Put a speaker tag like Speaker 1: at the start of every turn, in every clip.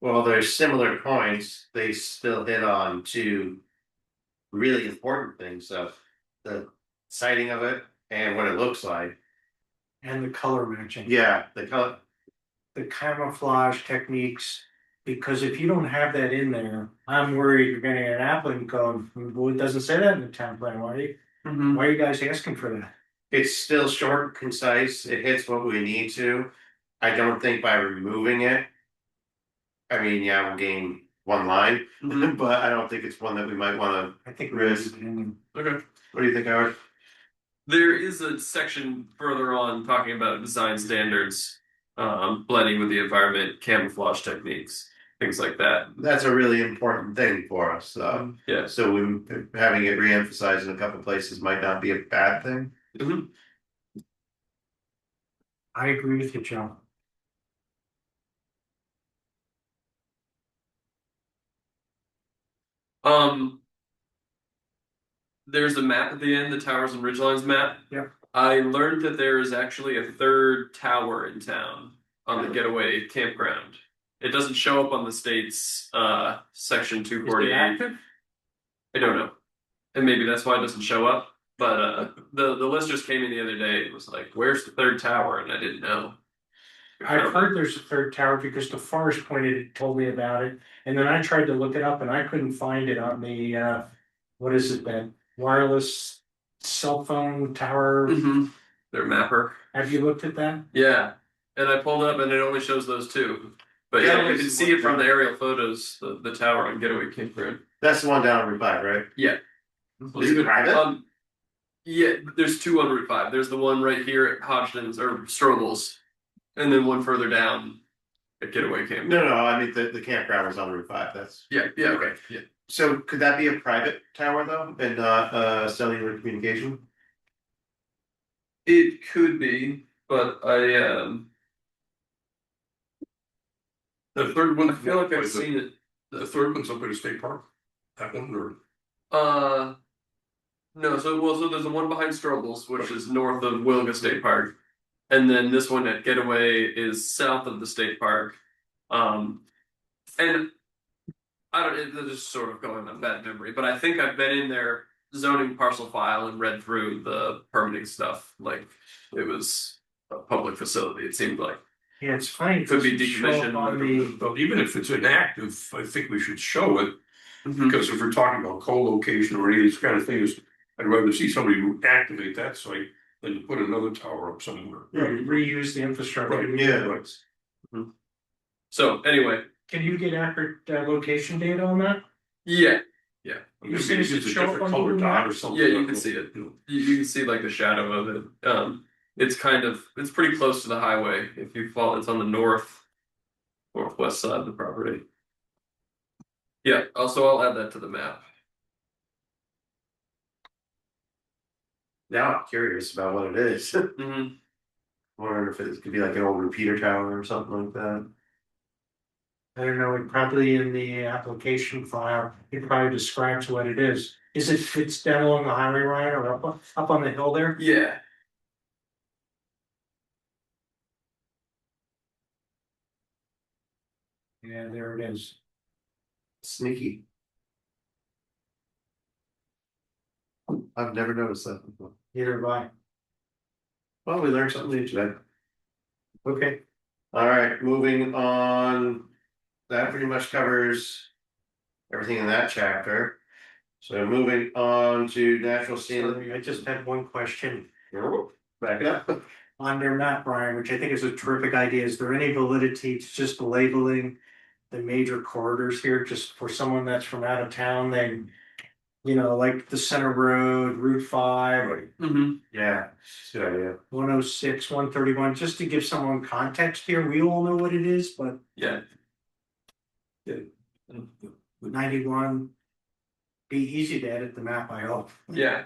Speaker 1: Well, there's similar points, they still hit on two. Really important things of the sighting of it and what it looks like.
Speaker 2: and the color matching.
Speaker 1: Yeah, the color,
Speaker 2: The camouflage techniques, because if you don't have that in there, I'm worried you're gonna get an applicant going, well, it doesn't say that in the town plan, why are you, why are you guys asking for that?
Speaker 1: it's still short, concise, it hits what we need to. I don't think by removing it. I mean, yeah, we'll gain one line, but I don't think it's one that we might wanna,
Speaker 2: I think. we're
Speaker 1: Risk.
Speaker 2: leaving
Speaker 3: Okay.
Speaker 1: what do you think, Howard?
Speaker 3: There is a section further on talking about design standards, um, blending with the environment, camouflage techniques, things like that.
Speaker 1: That's a really important thing for us, though.
Speaker 3: Yes.
Speaker 1: So we, having it re-emphasized in a couple places might not be a bad thing.
Speaker 3: Mhm.
Speaker 2: I agree with you, Joe.
Speaker 3: Um. There's the map at the end, the towers and ridgelines map.
Speaker 2: Yep.
Speaker 3: I learned that there is actually a third tower in town on the getaway campground. It doesn't show up on the state's uh section two forty eight. I don't know. And maybe that's why it doesn't show up. But uh the the list just came in the other day. It was like, where's the third tower? And I didn't know.
Speaker 2: I've heard there's a third tower because the forest pointed, told me about it, and then I tried to look it up and I couldn't find it on the, uh, what is it, that wireless cell phone tower?
Speaker 1: Mm.
Speaker 3: Mhm. Their mapper.
Speaker 2: Have you looked at that?
Speaker 3: Yeah. And I pulled up and it only shows those two. But
Speaker 1: Yeah,
Speaker 3: yeah, you
Speaker 1: it's-
Speaker 3: can see it from the aerial photos, the, the tower on Getaway Campground.
Speaker 1: That's the one down on Route Five, right?
Speaker 3: Yeah.
Speaker 1: Is it private?
Speaker 3: Um, yeah, there's two on Route 5. There's the one right here at Hodgdon's or Strobel's, and then one further down at Getaway Camp.
Speaker 1: No, no, I mean, the, the campground was on Route Five, that's.
Speaker 3: Yeah, yeah, okay. Yeah.
Speaker 1: So could that be a private tower though, and not uh cellular communication?
Speaker 3: It could be, but I um. The third one, I feel like I've
Speaker 4: Wait, the-
Speaker 3: seen it.
Speaker 4: The third one's up at a state park, that one, or
Speaker 3: Uh, no. So well, so there's the one behind Strobel's, which is north of Wilga State Park, and then this one at Getaway is south of the state park. Um, and I don't. It, they're just sort of going on that memory, but I think I've been in their zoning parcel file and read through the permitting stuff. Like it was a public facility. It seemed like.
Speaker 2: Yeah, it's funny.
Speaker 3: Could be
Speaker 2: because it show up
Speaker 3: decommissioned.
Speaker 2: On the,
Speaker 4: but even if it's inactive, I think we should show it, because if we're talking about co-location or any of these kind of things. I'd rather see somebody activate that site than to put another tower up somewhere.
Speaker 2: reuse the infrastructure.
Speaker 4: Right,
Speaker 1: Yeah.
Speaker 4: Right.
Speaker 3: So anyway,
Speaker 2: Can you get accurate uh, location data on that?
Speaker 3: yeah,
Speaker 4: I mean,
Speaker 2: You
Speaker 4: Maybe
Speaker 2: said it
Speaker 4: it's
Speaker 2: should
Speaker 4: a
Speaker 2: show up
Speaker 4: different
Speaker 2: on
Speaker 4: color
Speaker 2: Google
Speaker 4: dot or
Speaker 2: Maps.
Speaker 4: something.
Speaker 3: Yeah, you can see it.
Speaker 4: You know,
Speaker 3: you, you can see like the shadow of it. Um, it's kind of it's pretty close to the highway. If you fall, it's on the north northwest side of the property. Yeah. Also, I'll add that to the map.
Speaker 1: Now I'm curious about what it is.
Speaker 3: Mm-hmm.
Speaker 1: Wonder if it could be like an old repeater tower or something like that.
Speaker 2: I don't know, it probably in the application file, it probably describes what it is. Is it fits down along the highway, Ryan, or up, up on the hill there?
Speaker 3: Yeah.
Speaker 2: Yeah, there it is.
Speaker 1: Sneaky. I've never noticed that before.
Speaker 2: Either by,
Speaker 1: Well, we learned something new today.
Speaker 2: okay,
Speaker 1: All right, moving on. That pretty much covers everything in that chapter. So moving on to natural
Speaker 2: Sorry,
Speaker 1: scene.
Speaker 2: I just had one question.
Speaker 1: Back up.
Speaker 2: on their map, Brian, which I think is a terrific idea, is there any validity to just labeling the major corridors here, just for someone that's from out of town, they, you know, like the Center Road, Route five,
Speaker 3: Mm-hmm.
Speaker 1: Yeah, good idea.
Speaker 2: one oh six, one thirty-one, just to give someone context here, we all know what it is, but
Speaker 3: Yeah.
Speaker 2: ninety-one be easy to edit the map, I hope.
Speaker 3: Yeah.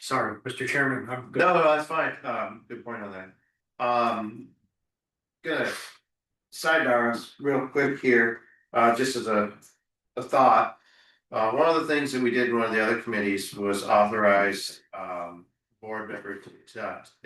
Speaker 2: Sorry, Mr. Chairman, I'm good.
Speaker 1: No, no, that's fine. Um, good point on that. Um. Good. Sidebars, real quick here, uh, just as a, a thought. Uh, one of the things that we did in one of the other committees was authorize, um, board member to, to